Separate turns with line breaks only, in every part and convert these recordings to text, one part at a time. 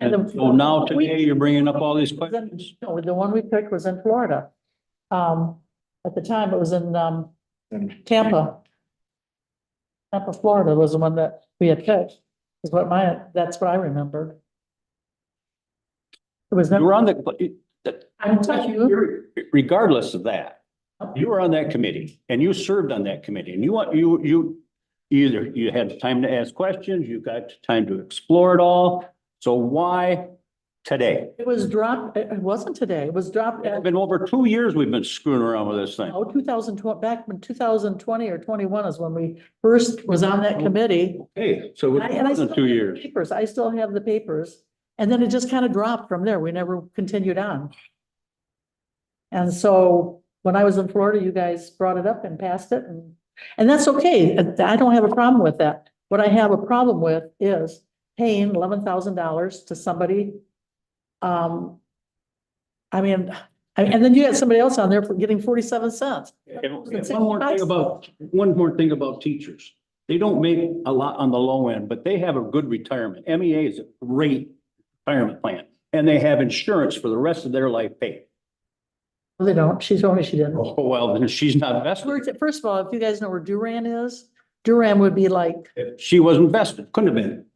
And so now today you're bringing up all these questions?
No, the one we picked was in Florida. Um, at the time, it was in, um, Tampa. Tampa, Florida was the one that we had picked, is what my, that's what I remembered. It was
You were
never,
on the,
I'm telling you,
you're- regardless of that, you were on that committee and you served on that committee and you want, you, you either you had time to ask questions, you got time to explore it all. So why today?
it was dropped, it it wasn't today, it was dropped
It's
at,
been over two years we've been screwing around with this thing.
oh, two thousand tw- back in two thousand twenty or twenty-one is when we first was on
Oh.
that committee.
Hey, so
And I- and I
it's
still
been
have
two
the
years.
Papers, I still have the papers, and then it just kind of dropped from there, we never continued on. And so, when I was in Florida, you guys brought it up and passed it, and, and that's okay, I don't have a problem with that. What I have a problem with is paying eleven thousand dollars to somebody. Um, I mean, I- and then you had somebody else on there for getting forty-seven cents.
And- and One more thing about, one more thing about teachers. They don't make a lot on the low end, but they have a good retirement. MEA is a great retirement plan. And they have insurance for the rest of their life paid.
They don't, she told me she didn't.
Oh, well, then she's not vested.
We're- First of all, if you guys know where Duran is, Duran would be like,
If She wasn't vested, couldn't have been.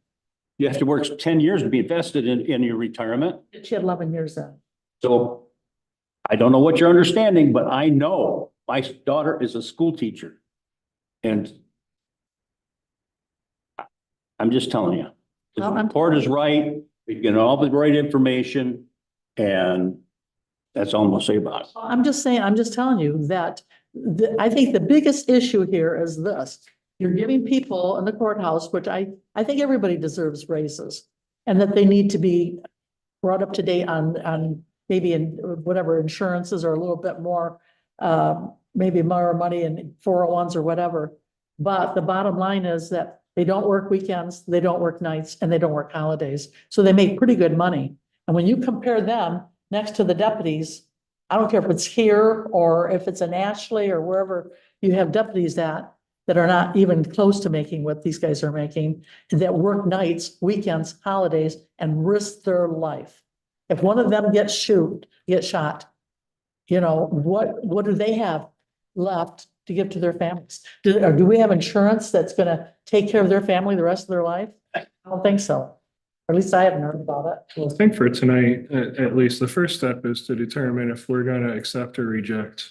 You have to work ten years to be vested in, in your retirement.
she had eleven years in.
So I don't know what you're understanding, but I know my daughter is a school teacher. And I- I'm just telling you, the
Well, I'm-
report is right, we get all the right information, and that's all I'm gonna say about it.
Well, I'm just saying, I'm just telling you that, the, I think the biggest issue here is this. You're giving people in the courthouse, which I, I think everybody deserves raises. And that they need to be brought up to date on, on maybe in whatever insurances or a little bit more, um, maybe more money in four oh ones or whatever. But the bottom line is that they don't work weekends, they don't work nights, and they don't work holidays. So they make pretty good money. And when you compare them next to the deputies, I don't care if it's here or if it's in Ashley or wherever you have deputies at that are not even close to making what these guys are making, that work nights, weekends, holidays, and risk their life. If one of them gets shoot, gets shot, you know, what, what do they have left to give to their families? Do, or do we have insurance that's gonna take care of their family the rest of their life? I don't think so. Or at least I haven't heard about it.
Well, I think for tonight, at, at least, the first step is to determine if we're gonna accept or reject.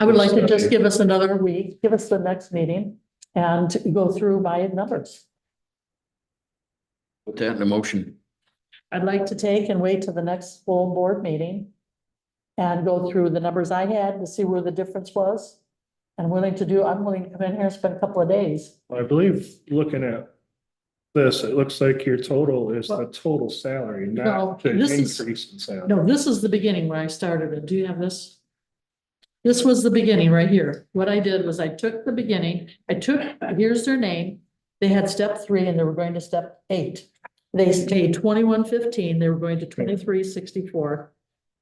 I would like to just give us another week, give us the next meeting and go through my numbers.
Put that in a motion.
I'd like to take and wait till the next full board meeting and go through the numbers I had to see where the difference was. And willing to do, I'm willing to come in here and spend a couple of days.
I believe, looking at this, it looks like your total is the total salary,
No,
not the
this is-
increase in salary.
No, this is the beginning where I started it. Do you have this? This was the beginning right here. What I did was I took the beginning, I took, here's their name. They had step three and they were going to step eight. They stayed twenty-one fifteen, they were going to twenty-three sixty-four.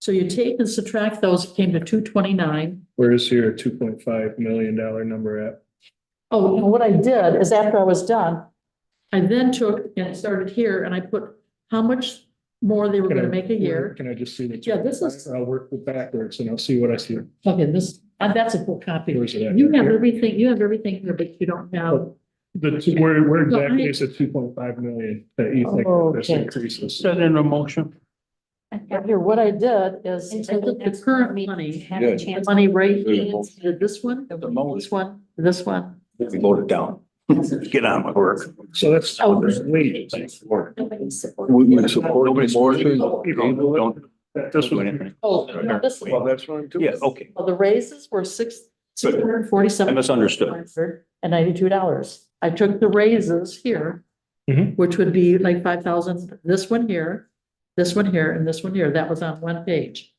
So you take and subtract those, it came to two twenty-nine.
Where's your two point five million dollar number at?
Oh, and what I did is after I was done, I then took and started here and I put how much more they were gonna make a year.
Can I just see the?
Yeah, this is-
I'll work it backwards and I'll see what I see.
Okay, this, uh, that's a full copy.
Where's it at?
You have everything, you have everything here, but you don't have,
The, two- where, where
No, I-
exactly is the two point five million that you think that this
Okay.
increases?
Send in a motion.
but here, what I did is I
Until the
took the
next
current
meeting,
money,
have a
Yeah.
chance.
money right,
Very well.
did this one,
The
this one, this one.
We voted down.
Get on with work.
So that's.
Oh.
Wait.
Nobody supported.
We we support the motion. Don't
That this
do
was.
anything.
Oh, no, this,
Well,
that's what I'm
Yeah, okay.
well, the raises were six, six hundred and forty-seven.
I misunderstood.
And ninety-two dollars. I took the raises here,
Mhm.
which would be like five thousand, this one here, this one here, and this one here. That was on one page.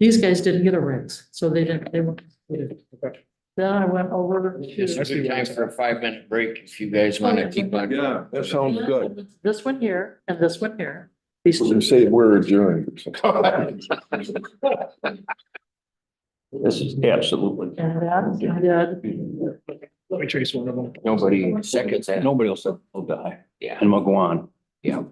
These guys didn't get a raise, so they didn't, they weren't. included.
Okay.
Then I went over. to-
It's a good time for a five minute break if you guys want to keep on.
Yeah, that sounds good.
This one here and this one here. These
You say we're adjourned.
This is absolutely,
And that, I did.
Let me trace one of them.
Nobody seconds that.
nobody else will die.
Yeah.
And we'll go on.
Yeah.